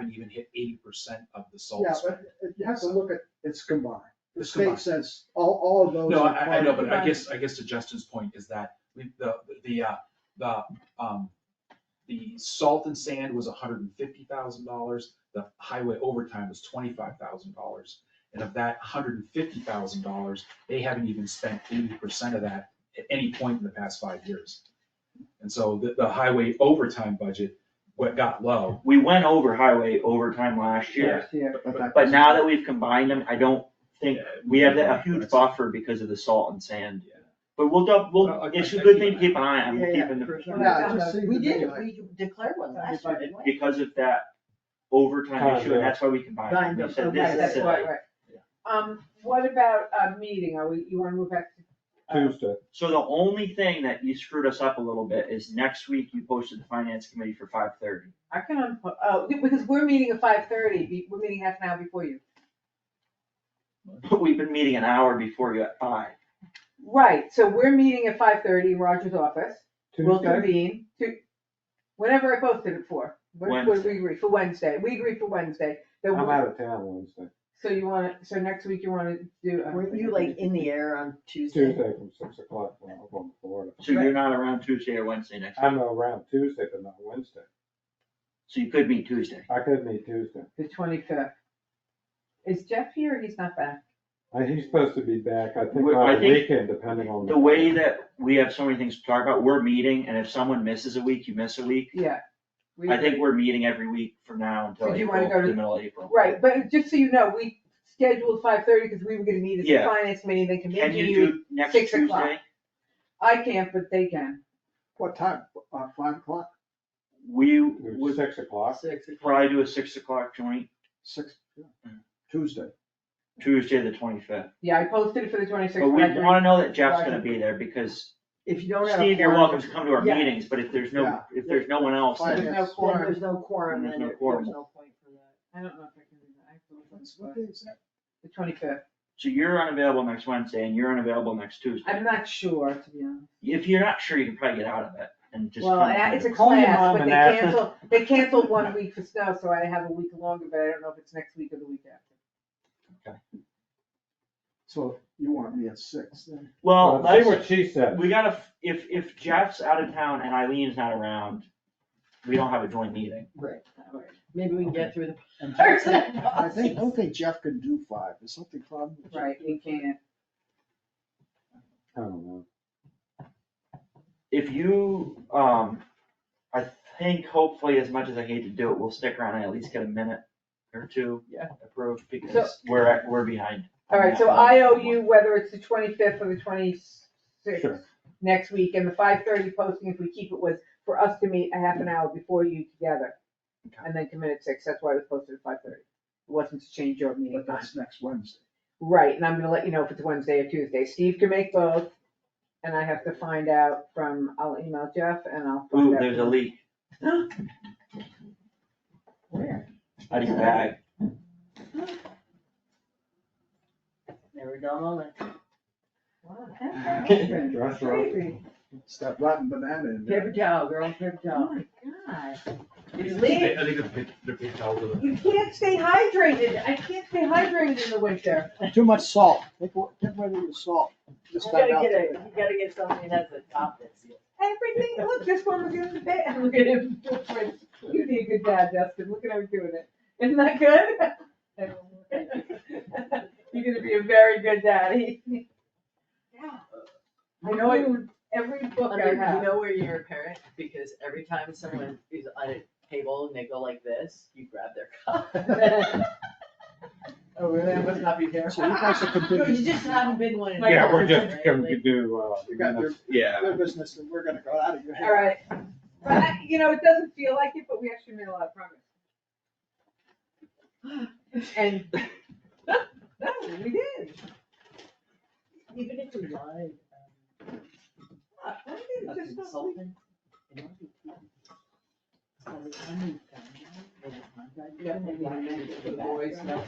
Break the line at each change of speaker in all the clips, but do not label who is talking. haven't even hit eighty percent of the salt
Yeah,
spend.
but if you have to look at, it's combined. The
It's
state
combined.
says all, all of those.
No,
are
I, I know,
part of
but I
Right.
guess, I guess to Justin's point is that we, the, the, uh, the, um, the salt and sand was hundred and fifty thousand dollars, the highway overtime was twenty-five thousand dollars. And of that hundred and fifty thousand dollars, they haven't even spent eighty percent of that at any point in the past five years. And so the, the highway overtime budget, what got low.
We went over highway overtime last year,
it. Yeah, but that-
but now that we've combined them, I don't think, we have that- a huge buffer because of the salt and sand.
Yeah.
But we'll, dou-
Well, I-
we'll, it's a good thing to keep an eye on,
Yeah,
we're
yeah,
keeping
for sure.
the.
Yeah, it just seemed
We
to
did,
me
it.
like-
we declared one last year, didn't we?
Because of that overtime
Oh,
issue, and
yeah.
that's why we combined them, we said
Okay,
this is
that's
silly.
right, right. Um, what about a meeting, are we, you wanna move back to? uh,
Tuesday.
So the only thing that you screwed us up a little bit is next week you posted the finance committee for five thirty.
I can, unpo- oh, be- because we're meeting at five thirty, we're meeting half an hour before you.
But we've been meeting an hour before you at five.
Right, so we're meeting at five thirty in Roger's office, we'll
Tuesday?
convene, to, whenever I posted it for, what, what did we agree, for Wednesday, we agreed for Wednesday. that
I'm
we-
out of town Wednesday,
So you wanna, so next week you wanna do. uh,
Weren't you like in the air on Tuesday?
Tuesday from six o'clock when I'm going to Florida.
So you're not around Tuesday or Wednesday next week.
I'm around Tuesday, but not Wednesday.
So you could meet Tuesday.
I could meet Tuesday.
The twenty-fifth. Is Jeff here, or he's not back?
I- Uh, He's supposed to be back, I think,
Well, I
on the
think
weekend, depending on.
The way that we have so many things to talk about, we're meeting, and if someone misses a week, you miss a week.
Yeah. We-
I think we're meeting every week from now until
Did you
April,
wanna go to-
the middle of April.
Right, but just so you know, we scheduled five thirty because we were gonna meet as a
Yeah.
finance meeting, they can
Can
meet
you
you.
do next
six
Tuesday?
o'clock. I can't, but they can.
What time? Uh, five o'clock,
We
It was
would
Six o'clock.
Six o'clock.
probably do a six o'clock joint,
six, yeah. Tuesday.
Tuesday the twenty-fifth.
Yeah, I posted it for the twenty-sixth.
But we wanna know that Jeff's
Roger.
gonna be there, because
If you don't have. a
Steve, you're
quorum,
welcome to come to our
Yeah.
meetings, but if there's no,
Yeah.
if there's no one else,
Fine.
then
There's no
Yes.
Then
quorum.
there's no quorum,
There's
then
no
there-
quorum.
there's no point for that.
I don't know if I can do that. I have to look on
What
the-
day is that?
The twenty-fifth.
So you're unavailable next Wednesday and you're unavailable next Tuesday.
I'm not sure, to be honest.
If you're not sure, you can probably get out of it and just.
Well,
come
and I-
here.
it's a
Call your
class,
mom
but they
and ask her.
canceled, they canceled one week for snow, so I have a week longer, but I don't know if it's next week or the week after.
So you want me at six then?
Well,
Say
that's,
what she said.
we gotta, f- if, if Jeff's out of town and Eileen's not around, we don't have a joint meeting.
Right. Maybe we can get through the.
And
first
Jeff-
and
I think, I
last.
don't think Jeff can do five, is something problem? with Jeff?
Right, we can't.
I don't know.
If you, um, I think hopefully as much as I hate to do it, we'll stick around and at least get a minute or two.
Yeah.
Approved because we're, at- we're behind.
All right, so I owe you whether it's the twenty-fifth or the twenty-sixth
Sure.
next week, and the five-thirty posting, if we keep it, was for us to meet a half an hour before you together.
Okay.
And then commit at six, that's why it was posted at five-thirty. It wasn't to change your meeting
But
time.
that's next Wednesday.
Right, and I'm gonna let you know if it's Wednesday or Tuesday. Steve can make both, and I have to find out from, I'll email Jeff and I'll
Ooh,
find out.
there's a leak
Where?
out of your bag.
Never dull moment.
Wow.
Dress her up.
Crazy.
It's that rotten banana in there.
Paper towel, girl, paper
Oh
towel.
my God. It's
I
leaking.
I think the big, the big towel with
You can't stay hydrated. I can't stay hydrated in the winter.
Too much salt, take, wa- take away the salt.
You
Just
gotta
about
get a,
out
you gotta get something that's a top that's.
Everything, look, this one was in the bed, look at him, you'd be a good dad, Justin, look at him doing it, isn't that good? You're gonna be a very good daddy. I know it, every book I
Under- You
have,
know where you're a parent, because every time someone is on a table and they go like this, you grab their cup.
oh, really, I must not be
there.
there.
So you guys are
You
completely,
just haven't been one. in a
Yeah,
long
we're
time,
just
right?
gonna
Like,
do, uh.
you got your,
Yeah.
your business and we're gonna go out of your head.
Alright, but, I- you know, it doesn't feel like it, but we actually made a lot of progress. And, no, we did.
Even if we lied.
Look, we did
um,
just
a
what we-
consultant, it might be fun. So we can move on.
Yeah, maybe I meant it for the boys, no.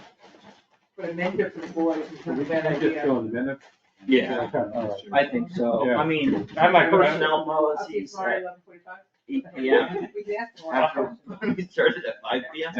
But I meant it for the boys, it's
Can
not a
we
bad
just
idea.
go in a minute?
Yeah,
Okay, all right.
I think so.
Yeah.
I mean,
I might-
personnel
Okay,
policies,
tomorrow,
that-
11:45.
yeah.
We can ask tomorrow.
After, we started at five P M.